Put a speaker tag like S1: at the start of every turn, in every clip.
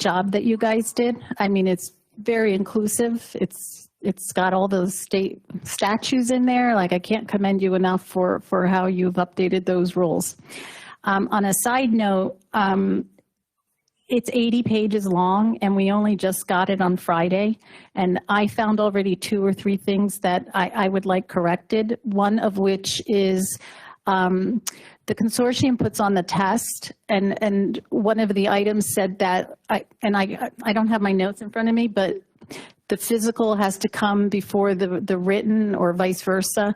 S1: job that you guys did. I mean, it's very inclusive. It's, it's got all those state statutes in there. Like, I can't commend you enough for, for how you've updated those rules. Um, on a side note, um, it's 80 pages long and we only just got it on Friday. And I found already two or three things that I, I would like corrected. One of which is, um, the consortium puts on the test, and, and one of the items said that, I and I, I don't have my notes in front of me, but the physical has to come before the, the written or vice versa.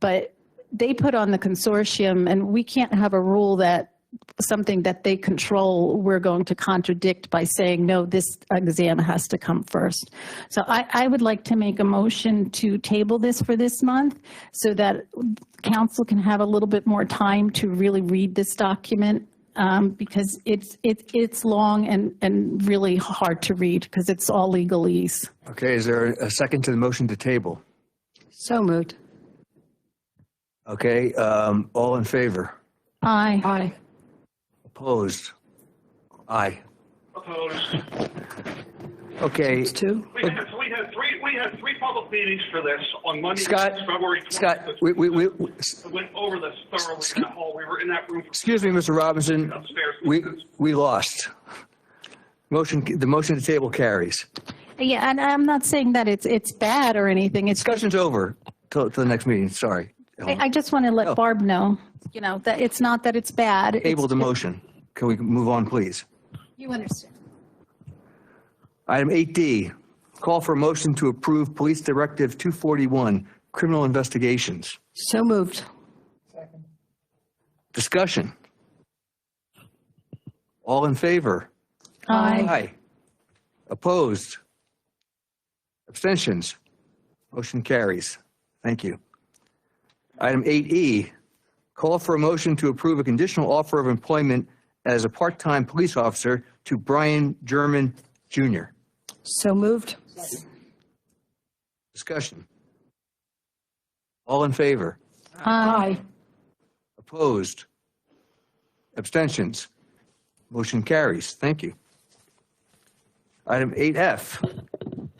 S1: But they put on the consortium, and we can't have a rule that something that they control, we're going to contradict by saying, no, this exam has to come first. So I, I would like to make a motion to table this for this month so that council can have a little bit more time to really read this document um, because it's, it's, it's long and, and really hard to read because it's all legalese.
S2: Okay, is there a second to the motion to table?
S3: So moved.
S2: Okay, um, all in favor?
S1: Aye.
S3: Aye.
S2: Opposed? Aye.
S4: Opposed.
S2: Okay,
S3: Two?
S4: We had, we had three, we had three public meetings for this on Monday,
S2: Scott,
S4: February 26th.
S2: Scott, we, we, we,
S4: We Went over this thoroughly in the hall. We were in that room
S2: excuse me, Mr. Robinson,
S4: upstairs.
S2: we, we lost. Motion, the motion to table carries.
S1: Yeah, and I'm not saying that it's, it's bad or anything. It's
S2: Discussion's over till, till the next meeting, sorry.
S1: I I just want to let Barb know, you know, that it's not that it's bad. It's-
S2: Table the motion. Can we move on, please?
S1: You understand.
S2: Item 8D, call for a motion to approve Police Directive 241, criminal investigations.
S3: So moved.
S2: Discussion. All in favor?
S1: Aye.
S2: Aye. Opposed? Abstentions? Motion carries. Thank you. Item 8E, call for a motion to approve a conditional offer of employment as a part-time police officer to Brian German Jr.
S3: So moved.
S2: Discussion. All in favor?
S3: Aye.
S2: Opposed? Abstentions? Motion carries. Thank you. Item 8F,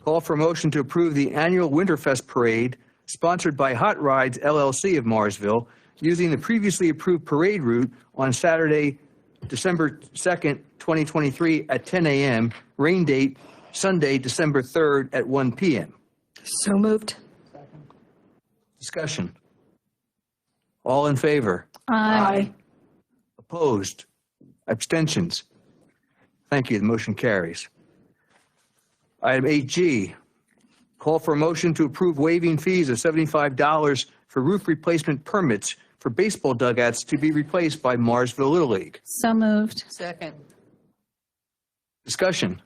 S2: call for motion to approve the annual Winterfest Parade sponsored by Hot Rides LLC of Marsville, using the previously approved parade route on Saturday, December 2nd, 2023 at 10 a.m., rain date Sunday, December 3rd at 1 p.m.
S3: So moved.
S2: Discussion. All in favor?
S1: Aye.
S2: Opposed? Abstentions? Thank you, the motion carries. Item 8G, call for a motion to approve waiving fees of $75 for roof replacement permits for baseball dugouts to be replaced by Marsville Little League.
S1: So moved.
S3: Second.
S2: Discussion.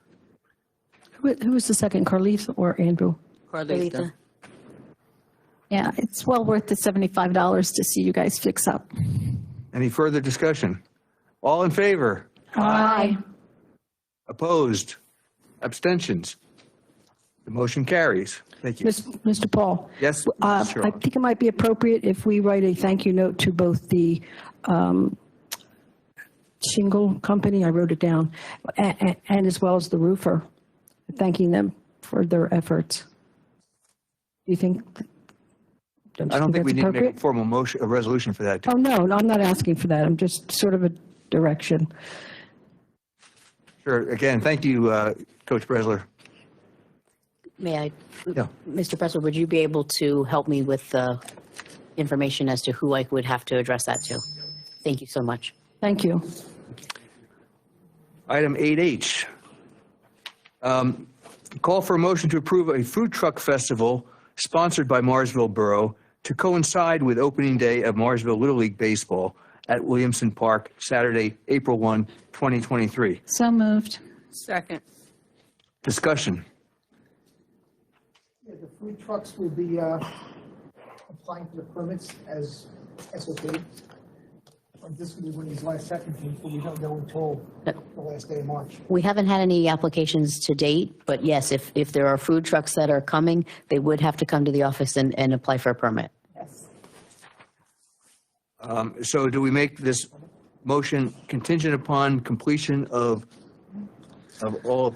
S3: Who who was the second, Carlith or Andrew?
S5: Carlita.
S1: Yeah, it's well worth the $75 to see you guys fix up.
S2: Any further discussion? All in favor?
S1: Aye.
S2: Opposed? Abstentions? The motion carries. Thank you.
S6: Miss- Mr. Paul?
S2: Yes, Mrs.
S6: Uh, I
S2: Sherlock.
S6: think it might be appropriate if we write a thank you note to both the um, shingle company, I wrote it down, a- a- and as well as the roofer, thanking them for their efforts. Do you think? you
S2: I don't think we need to
S6: that's
S2: make a
S6: appropriate?
S2: formal motion, a resolution for that.
S6: Oh, no, no, I'm not asking for that. I'm just sort of a direction.
S2: Sure, again, thank you, uh, Coach Bresler.
S5: May I,
S2: Yeah.
S5: Mr. Pressler, would you be able to help me with the information as to who I would have to address that to? Thank you so much.
S6: Thank you.
S2: Item 8H. Um, Call for a motion to approve a food truck festival sponsored by Marsville Borough to coincide with opening day of Marsville Little League Baseball at Williamson Park, Saturday, April 1, 2023.
S1: So moved.
S5: Second.
S2: Discussion.
S7: Yeah, the food trucks will be uh, applying for the permits as SOP. And This will be when these last second things, but we don't know until the last day of March.
S5: We haven't had any applications to date, but yes, if, if there are food trucks that are coming, they would have to come to the office and, and apply for a permit.
S2: Um, So do we make this motion contingent upon completion of of all